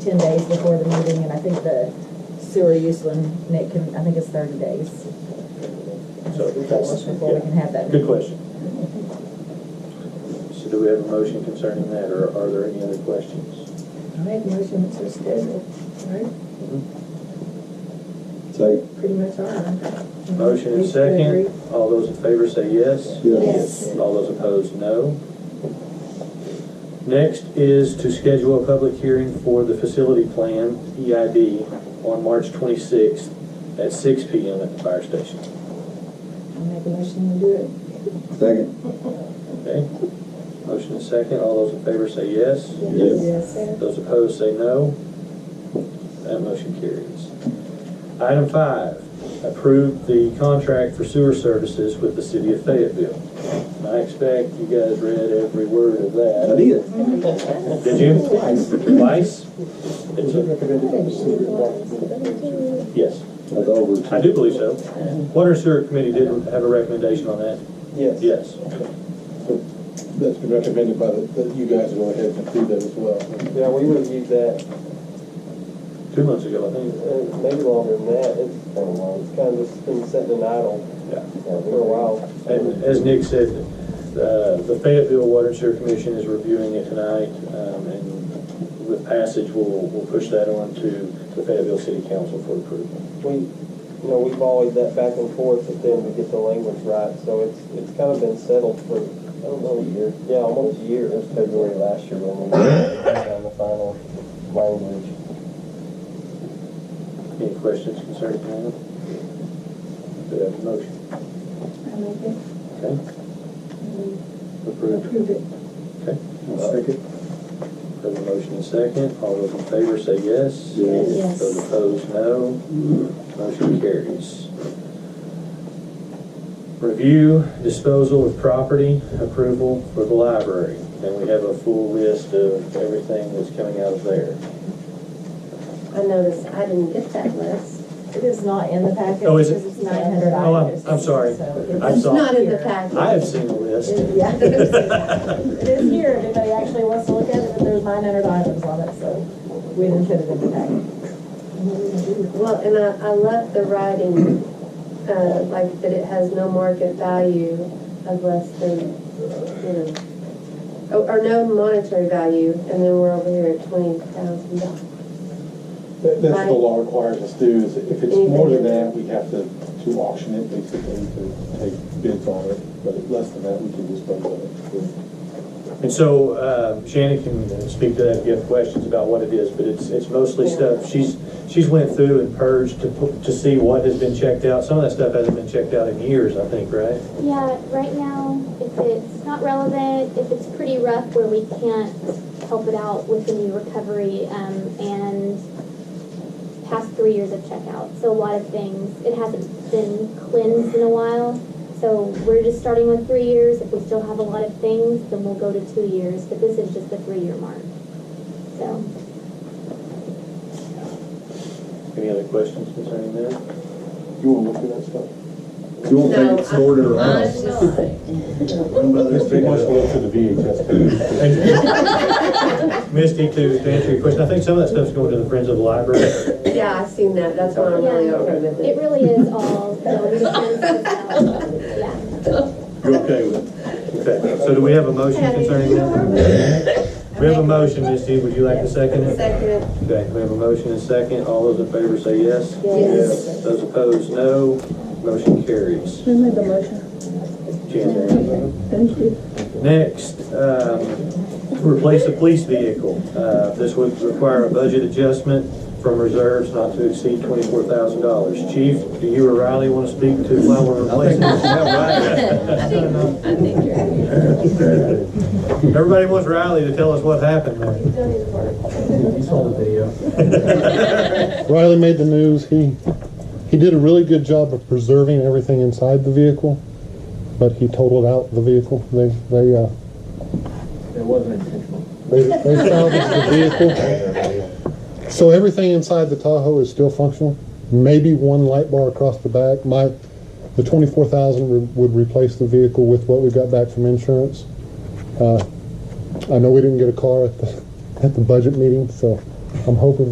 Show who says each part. Speaker 1: ten days before the meeting, and I think the sewer use one, Nick can, I think it's thirty days.
Speaker 2: So-
Speaker 1: Before we can have that.
Speaker 2: Good question. So do we have a motion concerning that, or are there any other questions?
Speaker 3: I make motion to schedule, right?
Speaker 4: Say,
Speaker 3: Pretty much are.
Speaker 2: Mm-hmm. Motion and second, all those in favor say yes.
Speaker 4: Yes.
Speaker 2: And all those opposed, no. Next is to schedule a public hearing for the facility plan, EID, on March twenty-sixth at six P M at the fire station.
Speaker 3: I make a motion to do it.
Speaker 4: second.
Speaker 2: Okay? Motion and second, all those in favor say yes.
Speaker 4: Yes.
Speaker 2: Those opposed say no. That motion carries. Item five, approve the contract for sewer services with the city of Fayetteville. I expect you guys read every word of
Speaker 4: I
Speaker 2: that.
Speaker 4: did.
Speaker 2: Did you? Twice? It's a- Yes,
Speaker 4: I thought we.
Speaker 2: I do believe so. Water and Sewer Committee did have a recommendation on that?
Speaker 5: Yes.
Speaker 2: Yes.
Speaker 6: That's been recommended by the, that you guys go ahead and approve that as well.
Speaker 5: Yeah, we reviewed that,
Speaker 2: Two months ago, I think.
Speaker 5: uh, maybe longer than that, it's been a while, it's kind of just been sitting and idle
Speaker 2: Yeah.
Speaker 5: for a while.
Speaker 2: And as Nick said, uh, the Fayetteville Water and Sewer Commission is reviewing it tonight, um, and with passage, we'll, we'll push that on to the Fayetteville City Council for approval.
Speaker 5: We, you know, we've always that back and forth, but then we get the language right, so it's, it's kind of been settled for, I don't know, a year, yeah, almost a year, it was February last year when we found the final language.
Speaker 2: Any questions concerning that? Do we have a motion?
Speaker 3: I make it.
Speaker 2: Okay, approved.
Speaker 3: Approve it.
Speaker 2: Okay,
Speaker 4: Second.
Speaker 2: have a motion and second. All those in favor say yes.
Speaker 4: Yes.
Speaker 3: Yes.
Speaker 2: Those opposed, no. Motion carries. Review disposal of property approval for the library. And we have a full list of everything that's coming out of there.
Speaker 7: I noticed I didn't get that list.
Speaker 1: It is not in the packet.
Speaker 2: Oh, is it?
Speaker 1: It's nine hundred
Speaker 2: Oh, I'm-
Speaker 1: dollars.
Speaker 2: I'm sorry. I
Speaker 7: It's
Speaker 2: saw-
Speaker 7: not in the packet.
Speaker 2: I have seen the list.
Speaker 1: Yeah. It is here, if anybody actually wants to look at it, but there's nine hundred items on it, so we didn't put it in the packet.
Speaker 7: Well, and I, I love the writing, uh, like that it has no market value of less than, you know, or, or no monetary value, and then we're over here at twenty thousand dollars.
Speaker 6: That- That's what the law requires us to do, is if it's more than that, we have to, to auction it, basically, to take bids on it, but if less than that, we can dispose of it.
Speaker 2: And so uh, Shannon can speak to that if you have questions about what it is, but it's, it's mostly stuff. She's, she's went through and purged to, pu- to see what has been checked out. Some of that stuff hasn't been checked out in years, I think, right?
Speaker 8: Yeah, right now, if it's not relevant, if it's pretty rough where we can't help it out with the new recovery, um, and past three years of checkout, so a lot of things, it hasn't been cleansed in a while. So we're just starting with three years, if we still have a lot of things, then we'll go to two years, but this is just the three-year mark. So,
Speaker 2: Any other questions concerning that?
Speaker 6: You wanna look through that stuff?
Speaker 4: You won't think it's stored in her
Speaker 7: Mine's
Speaker 4: house.
Speaker 7: not.
Speaker 6: He wants to look through the VHS.
Speaker 2: And- Misty, to to answer your question, I think some of that stuff's going to the Friends of the Library.
Speaker 7: Yeah, I seen that, that's why I'm really
Speaker 8: Yeah.
Speaker 7: okay with
Speaker 8: it
Speaker 7: it.
Speaker 8: really is all, you know, we just send stuff out. yeah.
Speaker 2: You're okay with it? Okay, so do we have a motion concerning that? We have a motion, Misty, would you like to second it?
Speaker 7: Second,
Speaker 2: Okay, we have a motion and second, all those in favor say yes.
Speaker 7: Yes.
Speaker 2: Those opposed, no. Motion carries.
Speaker 3: Who made the motion?
Speaker 2: Jan,
Speaker 3: Thank you.
Speaker 2: Next, um, to replace a police vehicle. Uh, This would require a budget adjustment from reserves not to exceed twenty-four thousand dollars. Chief, do you or Riley want to speak to why we're replacing? Everybody wants Riley to tell us what happened there.
Speaker 9: You saw the video.
Speaker 10: Riley made the news. He he did a really good job of preserving everything inside the vehicle, but he totaled out the vehicle. They they uh,
Speaker 9: It wasn't intentional.
Speaker 10: they, they salvaged the vehicle. So everything inside the Tahoe is still functional. Maybe one light bar across the back. My the twenty four thousand re- would replace the vehicle with what we got back from insurance. Uh, I know we didn't get a car at the at the budget meeting, so I'm hoping